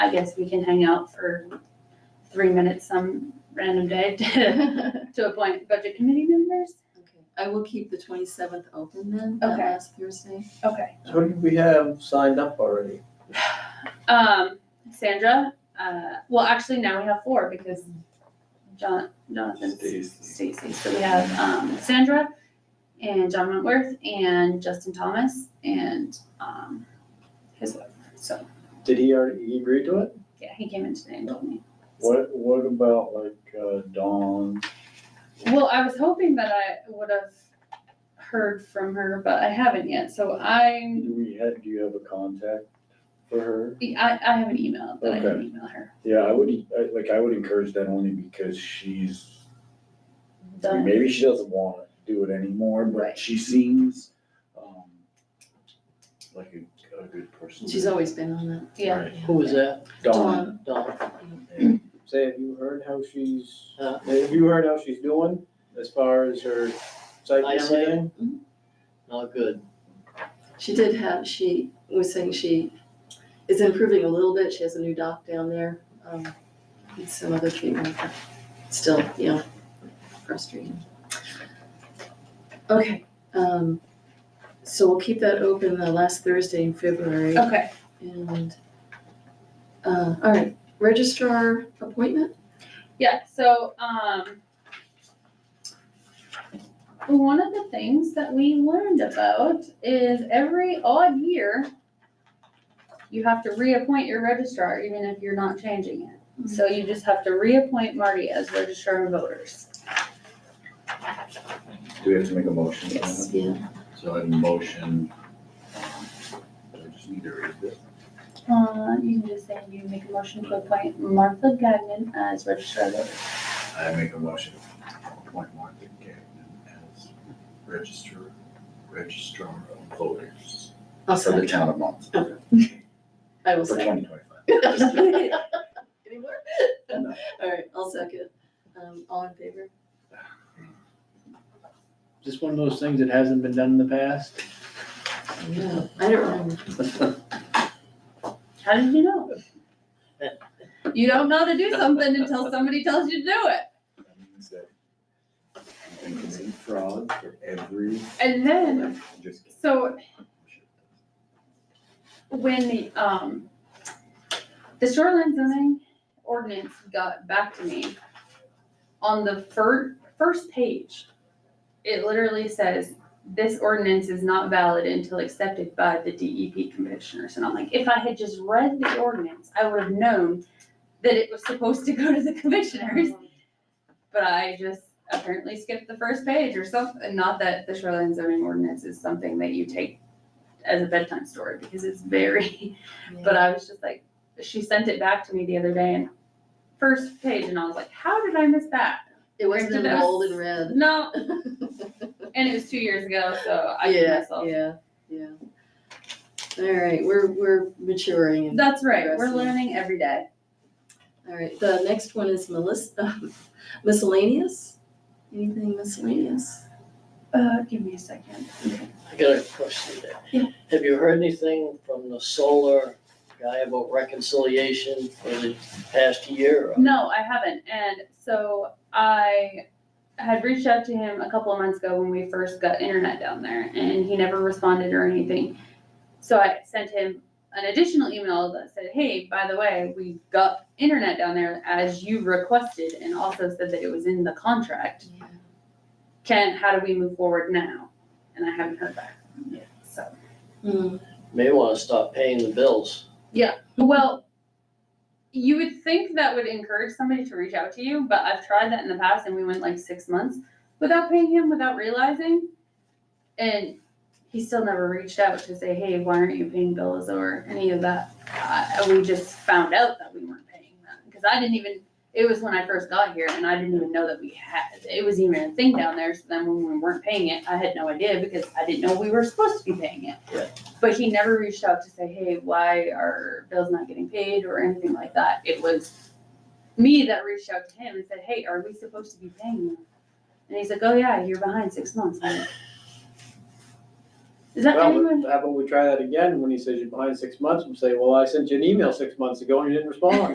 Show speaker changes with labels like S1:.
S1: I guess we can hang out for three minutes some random day to,
S2: Okay,
S1: to appoint budget committee members.
S2: I will keep the twenty-seventh open then, that
S1: Okay.
S2: last Thursday.
S1: Okay.
S3: So who do we have signed up already?
S1: Um, Sandra, uh, well, actually now we have four because John, Jonathan, Stacy, so we have, um, Sandra and John Wentworth and Justin Thomas and, um, his wife. So,
S3: Did he already, he agree to it?
S1: yeah, he came in today and told me.
S4: What, what about like uh, Dawn?
S1: Well, I was hoping that I would have heard from her, but I haven't yet. So I'm,
S4: Do we have, do you have a contact for her?
S1: I, I have an email that I can
S4: Okay.
S1: email her.
S4: Yeah, I would, I- like, I would encourage that only because she's, I mean,
S1: Done.
S4: maybe she doesn't want to do it anymore,
S1: Right.
S4: but she seems um, like a, a good person.
S2: She's always been on that.
S1: Yeah.
S4: Right.
S5: Who was that?
S4: Dawn,
S5: Dawn.
S4: yeah.
S3: Say, have you heard how she's,
S5: Huh?
S3: have you heard how she's doing as far as her psyche and
S5: Eyesight?
S3: everything?
S5: Mm-hmm. Not good.
S2: She did have, she was saying she is improving a little bit, she has a new doc down there, um, and some other treatment, but still, you know, frustrating. Okay, um, so we'll keep that open the last Thursday in February.
S1: Okay.
S2: And, uh, all right, registrar appointment?
S1: Yeah. So, um, one of the things that we learned about is every odd year, you have to reappoint your registrar, even if you're not changing it. So you just have to reappoint Marty as registrar of voters.
S4: Do we have to make a motion? for
S1: Yes.
S4: that?
S2: Yeah.
S4: So I have a motion. um, I just need to read this.
S1: Uh, you can just say you make a motion to appoint Martha Gagnon as registrar of voters.
S4: I make a motion to appoint Martha Gagnon as registrar, registrar of voters
S2: I'll
S4: for the
S2: second.
S4: town of Monmouth
S2: I will
S4: for
S2: second.
S4: twenty twenty-five.
S2: Anymore?
S4: No.
S2: All right, I'll second. Um, all in favor?
S5: Just one of those things that hasn't been done in the past.
S2: No, I don't remember.
S1: How did you know? You don't know to do something until somebody tells you to do it.
S4: That means that you can commit fraud for every.
S1: And then,
S4: Just kidding.
S1: so when the, um, the shoreline zoning ordinance got back to me, on the fir- first page, it literally says, this ordinance is not valid until accepted by the DEP commissioners. And I'm like, if I had just read the ordinance, I would have known that it was supposed to go to the commissioners. But I just apparently skipped the first page or something. Not that the shoreline zoning ordinance is something that you take as a bedtime story because it's very, but I was just like, she sent it back to me the other day and first page and I was like, how did I miss that?
S2: It wasn't in
S1: Where did I-
S2: bold and red.
S1: No, and it was two years ago, so I did
S2: Yeah,
S1: myself.
S2: yeah, yeah. All right, we're, we're maturing. and-
S1: That's right, we're
S2: Progressing.
S1: learning every day.
S2: All right, the next one is Melissa, miscellaneous? Anything miscellaneous?
S1: Uh, give me a second.
S5: I got a question there.
S1: Yeah.
S5: Have you heard anything from the solar guy about reconciliation for the past year?
S1: No, I haven't. And so I had reached out to him a couple of months ago when we first got internet down there, and he never responded or anything. So I sent him an additional email that said, Hey, by the way, we got internet down there as you requested, and also said that it was in the contract. Can, how do we move forward now? And I haven't heard back from him yet. So,
S2: Hmm,
S5: May wanna stop paying the bills.
S1: well, you would think that would encourage somebody to reach out to you, but I've tried that in the past and we went like six months without paying him, without realizing. And he still never reached out to say, hey, why aren't you paying bills or any of that? Uh, we just found out that we weren't paying them because I didn't even, it was when I first got here and I didn't even know that we had, it was even a thing down there. So then when we weren't paying it, I had no idea because I didn't know we were supposed to be paying it.
S5: Right.
S1: But he never reached out to say, hey, why are bills not getting paid or anything like that. It was me that reached out to him and said, hey, are we supposed to be paying you? And he's like, oh yeah, you're behind six months. I'm like, Is that
S3: Well,
S1: anyone?
S3: how about we try that again, when he says you're behind six months, we say, well, I sent you an email six months ago and you didn't respond.